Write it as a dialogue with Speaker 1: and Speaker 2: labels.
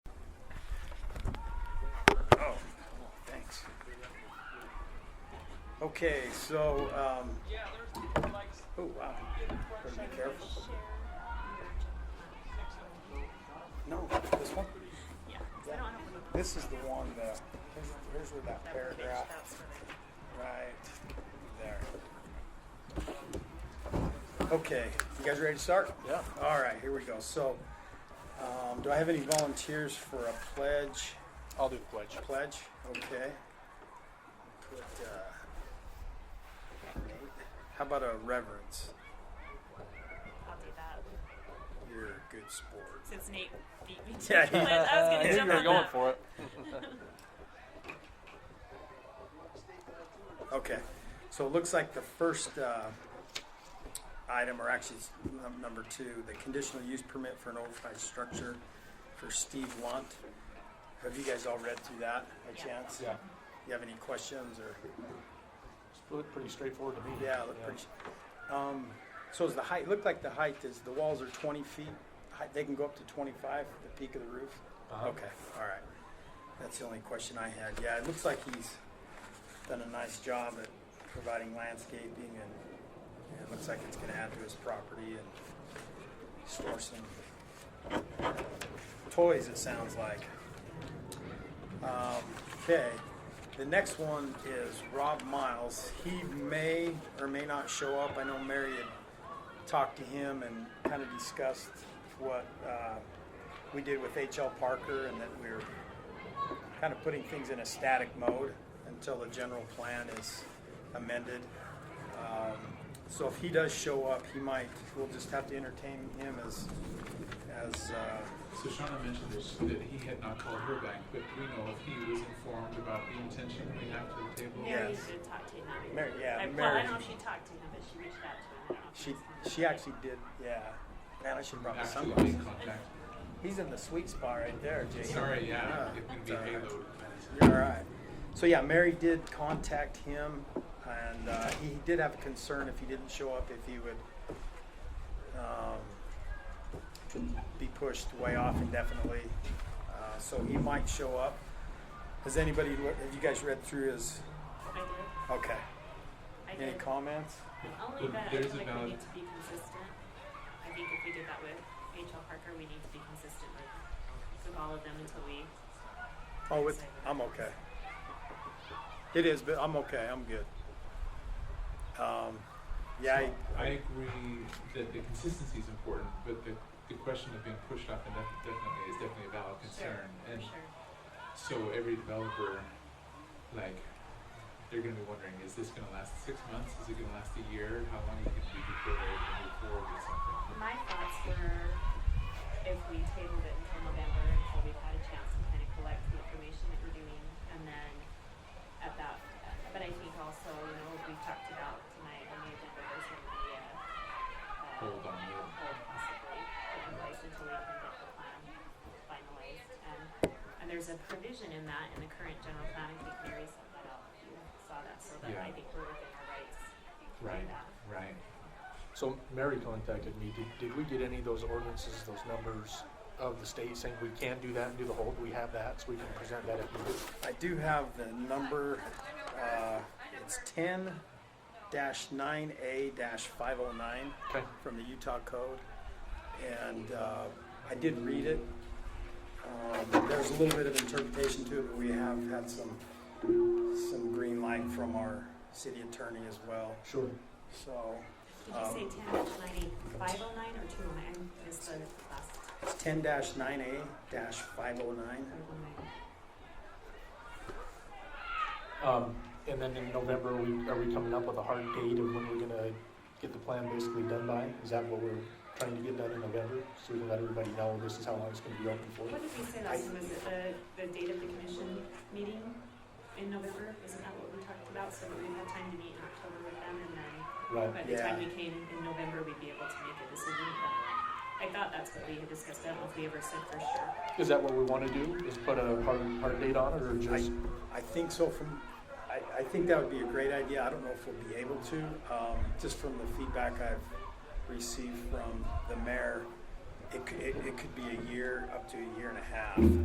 Speaker 1: Oh, Okay, so, um, oh, wow. Gotta be careful. No, this one?
Speaker 2: Yeah, 'cause I don't have one.
Speaker 1: This is the one that, here's- here's where that paragraph, right there. Okay, you guys ready to start?
Speaker 3: Yeah.
Speaker 1: All right, here we go. So, um, do I have any volunteers for a pledge?
Speaker 3: I'll do the pledge.
Speaker 1: Pledge, okay. Put, uh, how about a reverence?
Speaker 2: I'll do that.
Speaker 1: You're a good sport.
Speaker 2: Since Nate beat me to
Speaker 1: Yeah,
Speaker 2: it,
Speaker 1: he-
Speaker 2: I was
Speaker 3: I
Speaker 2: going to
Speaker 3: think
Speaker 2: jump
Speaker 3: you were
Speaker 2: on
Speaker 3: going
Speaker 2: that.
Speaker 3: for it.
Speaker 1: Okay, so it looks like the first uh, item, or actually it's num- number two, the conditional use permit for an oversized structure for Steve Lunt. Have you guys all read through that by
Speaker 2: Yeah.
Speaker 1: chance?
Speaker 3: Yeah.
Speaker 1: You have any questions or,
Speaker 3: It's pretty straightforward to me.
Speaker 1: yeah, it looked pretty. Um, so is the height, looked like the height is, the walls are twenty feet, Hi- they can go up to twenty-five, the peak of the roof?
Speaker 3: Uh-huh.
Speaker 1: Okay, all right. That's the only question I had. Yeah, it looks like he's done a nice job at providing landscaping and it looks like it's gonna add to his property and store some uh, toys, it sounds like. Um, okay, the next one is Rob Miles. He may or may not show up. I know Mary had talked to him and kind of discussed what, uh, we did with H.L. Parker and that we're kind of putting things in a static mode until the general plan is amended. Um, so if he does show up, he might, we'll just have to entertain him as, as, uh,
Speaker 4: So Shauna mentioned this, that he had not called her back, but do we know if he was informed about the intention we have to the table?
Speaker 2: Mary
Speaker 1: Yes.
Speaker 2: did talk to him.
Speaker 1: Mary- yeah,
Speaker 2: I, Well,
Speaker 1: Mary-
Speaker 2: I don't know if she talked to him, but she reached out to him. I don't know if
Speaker 1: she,
Speaker 2: it's-
Speaker 1: she actually did, yeah. Man, I should probably
Speaker 4: Actually,
Speaker 1: sunglasses.
Speaker 4: in contact.
Speaker 1: He's in the sweet spot right there, Jake.
Speaker 4: Sorry, yeah,
Speaker 1: Yeah,
Speaker 4: it would
Speaker 1: it's
Speaker 4: be
Speaker 1: all right.
Speaker 4: haloed.
Speaker 1: You're all right. So yeah, Mary did contact him, and uh, he did have a concern if he didn't show up, if he would um, be pushed way off indefinitely. Uh, so he might show up. Has anybody? lo- Have you guys read through his?
Speaker 2: I did.
Speaker 1: Okay.
Speaker 2: I
Speaker 1: Any
Speaker 2: did.
Speaker 1: comments?
Speaker 2: Only
Speaker 4: But
Speaker 2: that I
Speaker 4: there's
Speaker 2: feel
Speaker 4: a
Speaker 2: like we
Speaker 4: valid-
Speaker 2: need to be consistent. I think if we did that with H.L. Parker, we need to be consistent with, with all of them until we.
Speaker 1: Oh, it's, I'm okay. It is, but I'm okay. I'm good. Um, yeah. I-
Speaker 4: I agree that the consistency is important, but the, the question of being pushed off indef- definitely is definitely a valid concern.
Speaker 2: Sure,
Speaker 4: And
Speaker 2: sure.
Speaker 4: so every developer, like, they're gonna be wondering, is this gonna last six months? Is it gonna last a year? How long is it gonna be before they're able to move forward with something?
Speaker 2: My thoughts were if we tabled it until November until we've had a chance to kind of collect the information that we're doing and then at that, but I think also, you know, what we've talked about tonight on the agenda was in the, uh, uh,
Speaker 4: Hold on, yeah.
Speaker 2: Hold possibly, in place until we can get the plan finalized. And, and there's a provision in that in the current general plan, I think Mary sent that out, if you saw that, so that I
Speaker 4: Yeah.
Speaker 2: think we're within our rights. to do
Speaker 4: Right,
Speaker 2: that.
Speaker 4: right.
Speaker 3: So Mary contacted me. Did, did we get any of those ordinances, those numbers of the state saying we can do that and do the hold? We have that, so we can present that if needed.
Speaker 1: I do have the number, uh, it's ten nine A five oh nine
Speaker 3: Okay.
Speaker 1: from the Utah Code. And, uh, I did read it. Um, there's a little bit of interpretation to it, but we have had some, some green light from our city attorney as well,
Speaker 3: Sure.
Speaker 1: so.
Speaker 2: Did
Speaker 1: um,
Speaker 2: you say ten dash ninety, five oh nine or two oh nine? I missed the last
Speaker 1: It's ten nine A five oh nine.
Speaker 2: five oh nine.
Speaker 3: Um, and then in November, are we, are we coming up with a hard date of when we're gonna get the plan basically done by? Is that what we're trying to get done in November? So we can let everybody know this is how long it's gonna be open for?
Speaker 2: What did we say last time? Was it the, the date of the commission meeting in November? Isn't that what we talked about? So that we had time to meet in October with them and then
Speaker 3: Right.
Speaker 2: by the time
Speaker 1: Yeah.
Speaker 2: we came in November, we'd be able to make a decision. But I thought that's what we had discussed. I don't know if we ever said for sure.
Speaker 3: Is that what we wanna do? Is put a hard, hard date on it or
Speaker 1: I,
Speaker 3: just?
Speaker 1: I think so from, I, I think that would be a great idea. I don't know if we'll be able to, um, just from the feedback I've received from the mayor, it could, it, it could be a year, up to a year and a half.